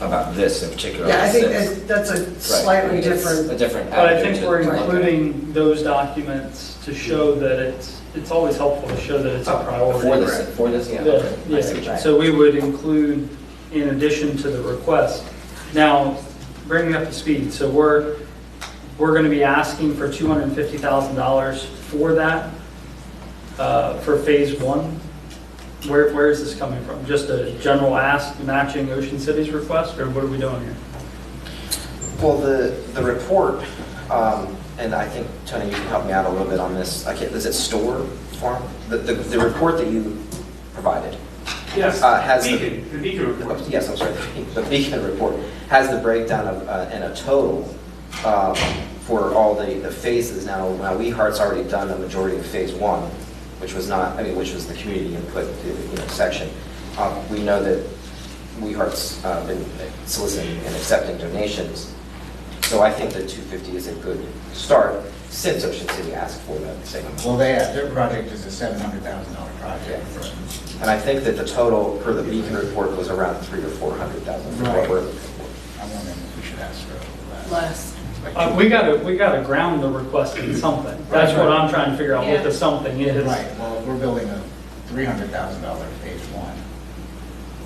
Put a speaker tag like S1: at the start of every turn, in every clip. S1: about this in particular.
S2: Yeah, I think
S1: this.
S2: that- that's a
S1: Right.
S2: slightly
S1: It's
S2: different,
S1: A different
S3: But I
S1: avenue
S3: think
S1: to
S3: we're
S1: to look at.
S3: including those documents to show that it's, it's always helpful to show that it's a priority.
S1: For this, for this, yeah. okay.
S3: Yeah,
S1: I see what
S3: yeah.
S1: you're
S3: So we would include, in addition to the request. Now, bringing up the speed, so we're, we're going to be asking for $250,000 for that, uh, for phase one. Where, where is this coming from? Just a general ask matching Ocean City's request, or what are we doing here?
S4: Well, the, the report, um, and I think, Tony, you can help me out a little bit on this. I can't, is it store form? The, the, the report that you provided,
S5: Yes,
S4: Uh, has the-
S5: Beacon, the Beacon report.
S4: yes, I'm sorry, the Beacon report, has the breakdown of, uh, and a total um, for all the, the phases. Now, now We Heart's already done the majority of phase one, which was not, I mean, which was the community input, you know, section. Um, We know that We Heart's uh, been soliciting and accepting donations. So I think that 250 is a good start, since Ocean City asked for that same amount.
S6: Well, they, uh, their project is a seven hundred thousand dollar project.
S4: And I think that the total per the Beacon report was around three or 400,000 for what
S6: Right.
S4: we're looking for.
S6: I wonder if we should ask for a little
S7: less.
S6: less.
S3: Uh, We gotta, we gotta ground the request in something. That's what I'm trying to figure out, what the
S7: Yeah.
S3: something is.
S6: Right, well, we're building a three hundred thousand dollar phase one.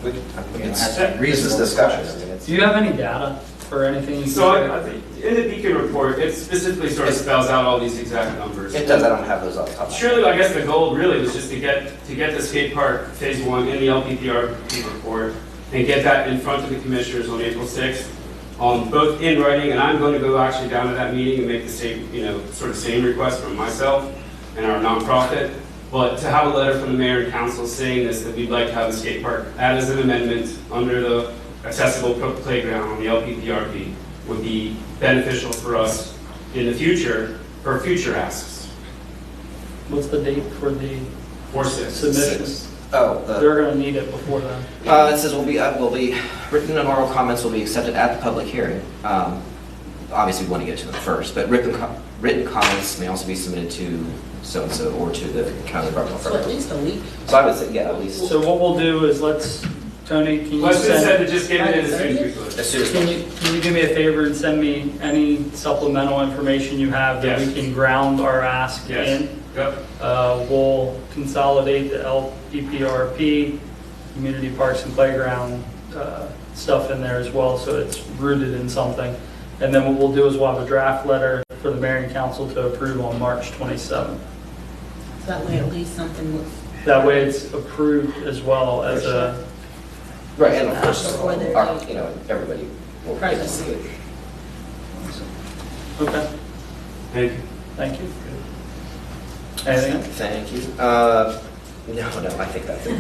S4: We can- I mean,
S6: You know,
S4: it's-
S6: that's a
S4: This is
S6: reasonable
S4: discussion.
S6: request.
S4: I mean, it's-
S3: Do you have any data or anything? you
S5: So
S3: can
S5: I, I think, in the Beacon report, it specifically sort of spells out all these exact numbers.
S4: It does, I don't have those off the top. of my head.
S5: Surely, I guess the goal really was just to get, to get the skate park phase one in the LPPR report and get that in front of the commissioners on April sixth, um, both in writing, and I'm going to go actually down to that meeting and make the same, you know, sort of same request from myself and our nonprofit. But to have a letter from the mayor and council saying this, that we'd like to have the skate park added as an amendment under the accessible pro- playground on the LPPRP would be beneficial for us in the future, for future asks,
S3: What's the date for the
S5: or six.
S3: submission?
S4: Oh, the,
S3: They're gonna need it before then.
S4: uh, it says will be, uh, will be, written and oral comments will be accepted at the public hearing. Um, Obviously, we want to get to them first, but written, co- written comments may also be submitted to so-and-so or to the county environmental
S7: So at
S4: firm.
S7: least a week.
S4: So I would say, yeah, at least
S3: So what we'll do is let's, Tony, can you
S5: Let's just
S3: send,
S5: send it, just get it in as soon as we could.
S4: as soon as.
S3: can you, can you do me a favor and send me any supplemental information you have that we
S5: Yes.
S3: can ground our ask
S5: Yes.
S3: in?
S5: Yep.
S3: Uh, We'll consolidate the LPPRP, community parks and playground uh, stuff in there as well, so it's rooted in something. And then what we'll do is we'll have a draft letter for the mayor and council to approve on March 27th.
S7: So That way at least something looks.
S3: That way it's approved as well as a,
S4: Right, and of course,
S7: Before they're
S4: our-
S7: due.
S4: you know, everybody will get to see it.
S3: okay,
S5: Thank you.
S3: thank you. Anything? else?
S4: Thank you. Uh, No, no, I think that's it.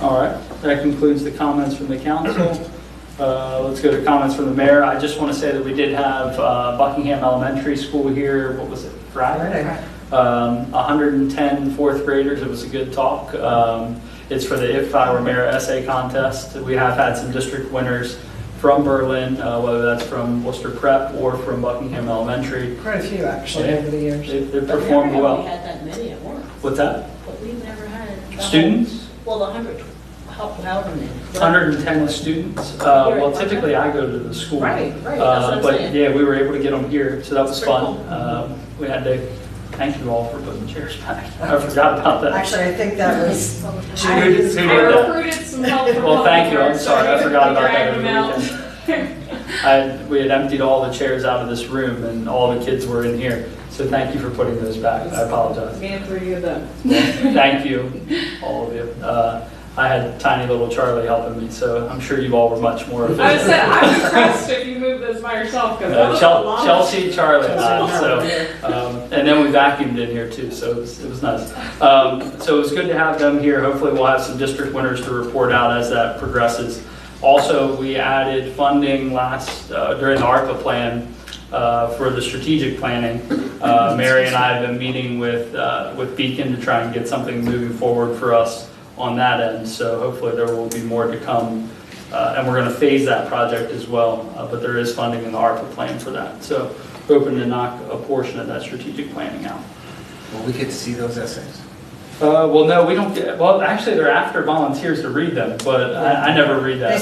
S3: All right, that concludes the comments from the council. Uh, Let's go to comments from the mayor. I just want to say that we did have uh, Buckingham Elementary School here, what was it, Friday? Um, 110 fourth graders, it was a good talk. Um, It's for the If I Were Mayor essay contest. We have had some district winners from Berlin, uh, whether that's from Worcester Prep or from Buckingham Elementary.
S2: quite a few actually over the years.
S3: They they
S7: But never
S3: performed
S7: have We
S3: well.
S7: had that many at once,
S3: What's that?
S7: but we've never had. the whole-
S3: Students?
S7: Well, a hundred, how- however many.
S3: 110 students. Uh, Well, typically I go to the school.
S7: Right, right, that's
S3: Uh,
S7: what I'm
S3: But
S7: saying.
S3: yeah, we were able to get them here, so that was
S7: Pretty
S3: fun.
S7: cool.
S3: Um, We had to, thank you all for putting chairs back. I forgot about that.
S2: Actually, I think that was,
S5: Who did- who
S8: I
S5: did that?
S8: recruited some help from.
S3: Well, thank you, I'm
S8: volunteers,
S3: sorry, I
S8: so
S3: forgot about that.
S8: dragged them out.
S3: over the weekend. I, we had emptied all the chairs out of this room and all the kids were in here, so thank you for putting those back, I apologize.
S8: Me and three of them.
S3: Thank you, all of you. Uh, I had tiny little Charlie helping me, so I'm sure you all were much more
S8: I
S3: efficient.
S8: said, I'm impressed if you move this by yourself, because that
S3: Uh,
S8: was a
S3: Chel-
S8: lot.
S3: Chelsea, Charlie, and I,
S2: Chelsea,
S3: so, um, and then we vacuumed in here too, so it was, it was nice. Um, so it was good to have them here. Hopefully we'll have some district winners to report out as that progresses. Also, we added funding last, uh, during the ARPA plan, uh, for the strategic planning. Uh, Mary and I have been meeting with, uh, with Beacon to try and get something moving forward for us on that end. So hopefully there will be more to come uh, and we're going to phase that project as well, uh, but there is funding in the ARPA plan for that. So hoping to knock a portion of that strategic planning out.
S6: Will we get to see those essays?
S3: Uh, well, no, we don't get, well, actually, they're after volunteers to read them, but I, I never read that.